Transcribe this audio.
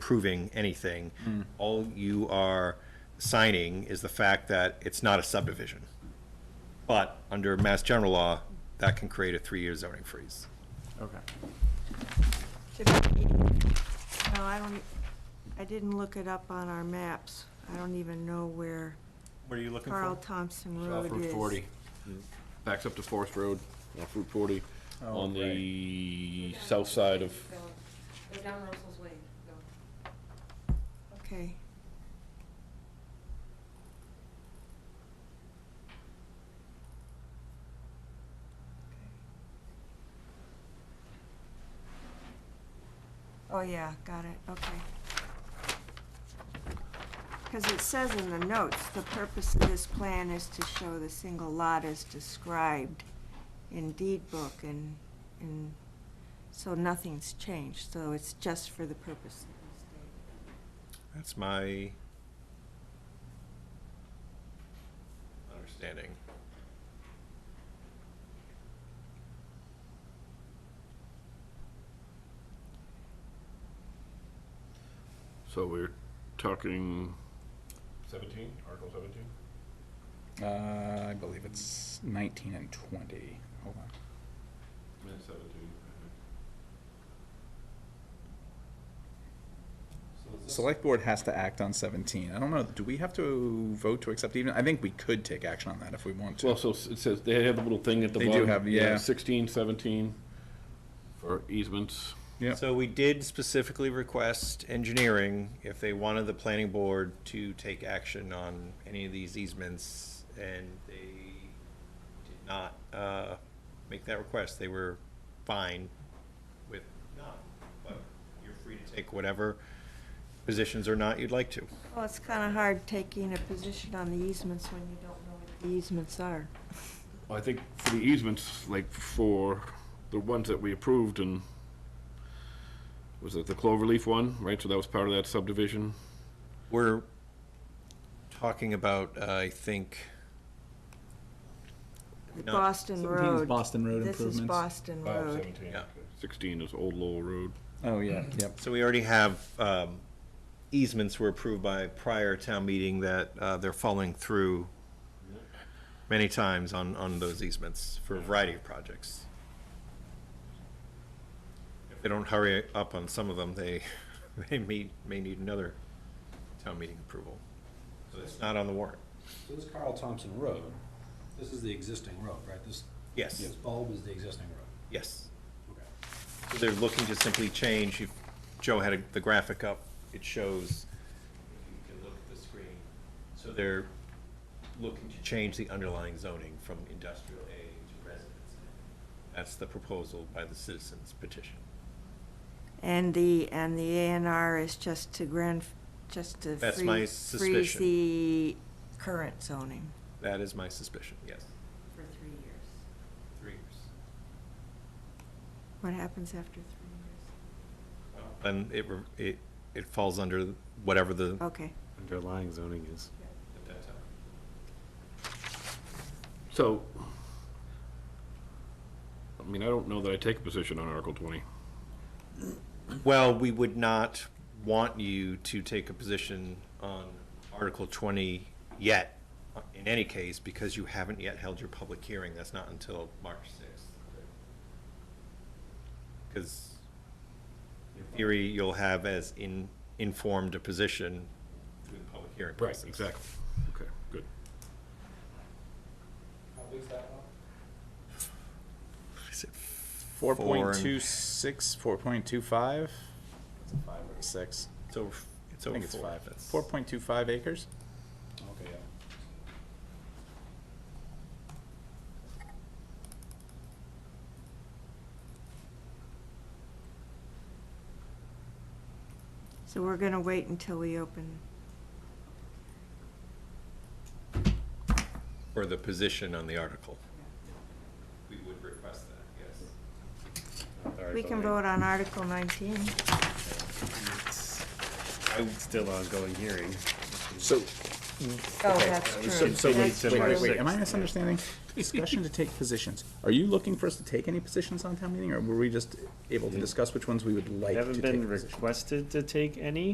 approving anything. All you are signing is the fact that it's not a subdivision. But under Mass General Law, that can create a three-year zoning freeze. Okay. Should be- No, I don't, e, I didn't look it up on our maps. I don't even know where What are you looking Carl Thompson Off Road Uh, Route is. forty, backs up to Forest Road, off Route forty, Oh, on the south side of, Go, go down Russell's Way, go. Okay. Oh, yeah, got it, okay. Because it says in the notes, the purpose of this plan is to show the single lot as described in deed book and, and, so nothing's changed, so it's just for the purpose of this thing. That's my understanding. so we're talking. Seventeen, Article seventeen? Uh, I believe it's 19 and 20. Hold on. seventeen. Select board has to act on 17. I don't know, do we have to vote to accept even? I think we could take action on that if we want to. Well, so s- it says, they have a little thing at the They do bottom. have, yeah. Sixteen, seventeen, for easements. Yeah. So we did specifically request engineering if they wanted the planning board to take action on any of these easements, and they did not uh, make that request. They were fine with not, but you're free to take whatever positions or not you'd like to. Well, it's kind of hard taking a position on the easements when you don't know what the easements are. Well, I think for the easements, like for the ones that we approved and, was it the Cloverleaf one, right? So that was part of that subdivision? We're talking about, uh, I think, The No. Boston Road. Boston Road This is improvements. Boston oh Road. Yeah. Sixteen is Old Lowell Road. Oh, yeah, yep. So we already have um, easements were approved by prior town meeting that uh, they're following through many times on, on those easements for a variety of projects. If they don't hurry up on some of them, they, they may, may need another town meeting approval. So it's not on the warrant. So this Carl Thompson Road, this is the existing road, right? This, Yes, this bulb is the existing road. yes. Okay. So They're looking to simply change, if Joe had a- the graphic up, it shows, if you can look at the screen, so they're looking to change the underlying zoning from industrial A to residence. A. That's the proposal by the citizens petition. And the, and the A and R is just to grand, just to That's my free- freeze suspicion. the current zoning. That is my suspicion, yes. For three years. Three years. What happens after three And it, re- it, it falls under whatever the, years? Okay. underlying zoning is. at that time. So, I mean, I don't know that I take a position on Article twenty. Well, we would not want you to take a position on Article 20 yet, uh, in any case, because you haven't yet held your public hearing. That's not until March 6th. Because in theory, you'll have as in, informed a position through the public hearing process. Okay, good. Is it 4.26, 4.25? Five or six. It's over, it's I over think it's four. five. That's- 4.25 acres? Okay, yeah. So we're going to wait until we open. Or the position on the article. We would request that, yes. We can vote on Article 19. Still ongoing hearing. So, Oh, that's true. so wait, That's so wait, true. wait, am I misunderstanding? Discussion to take positions. Are you looking for us to take any positions on town meeting, or were we just able to discuss which ones we would like to Haven't take? been positions? requested to take any.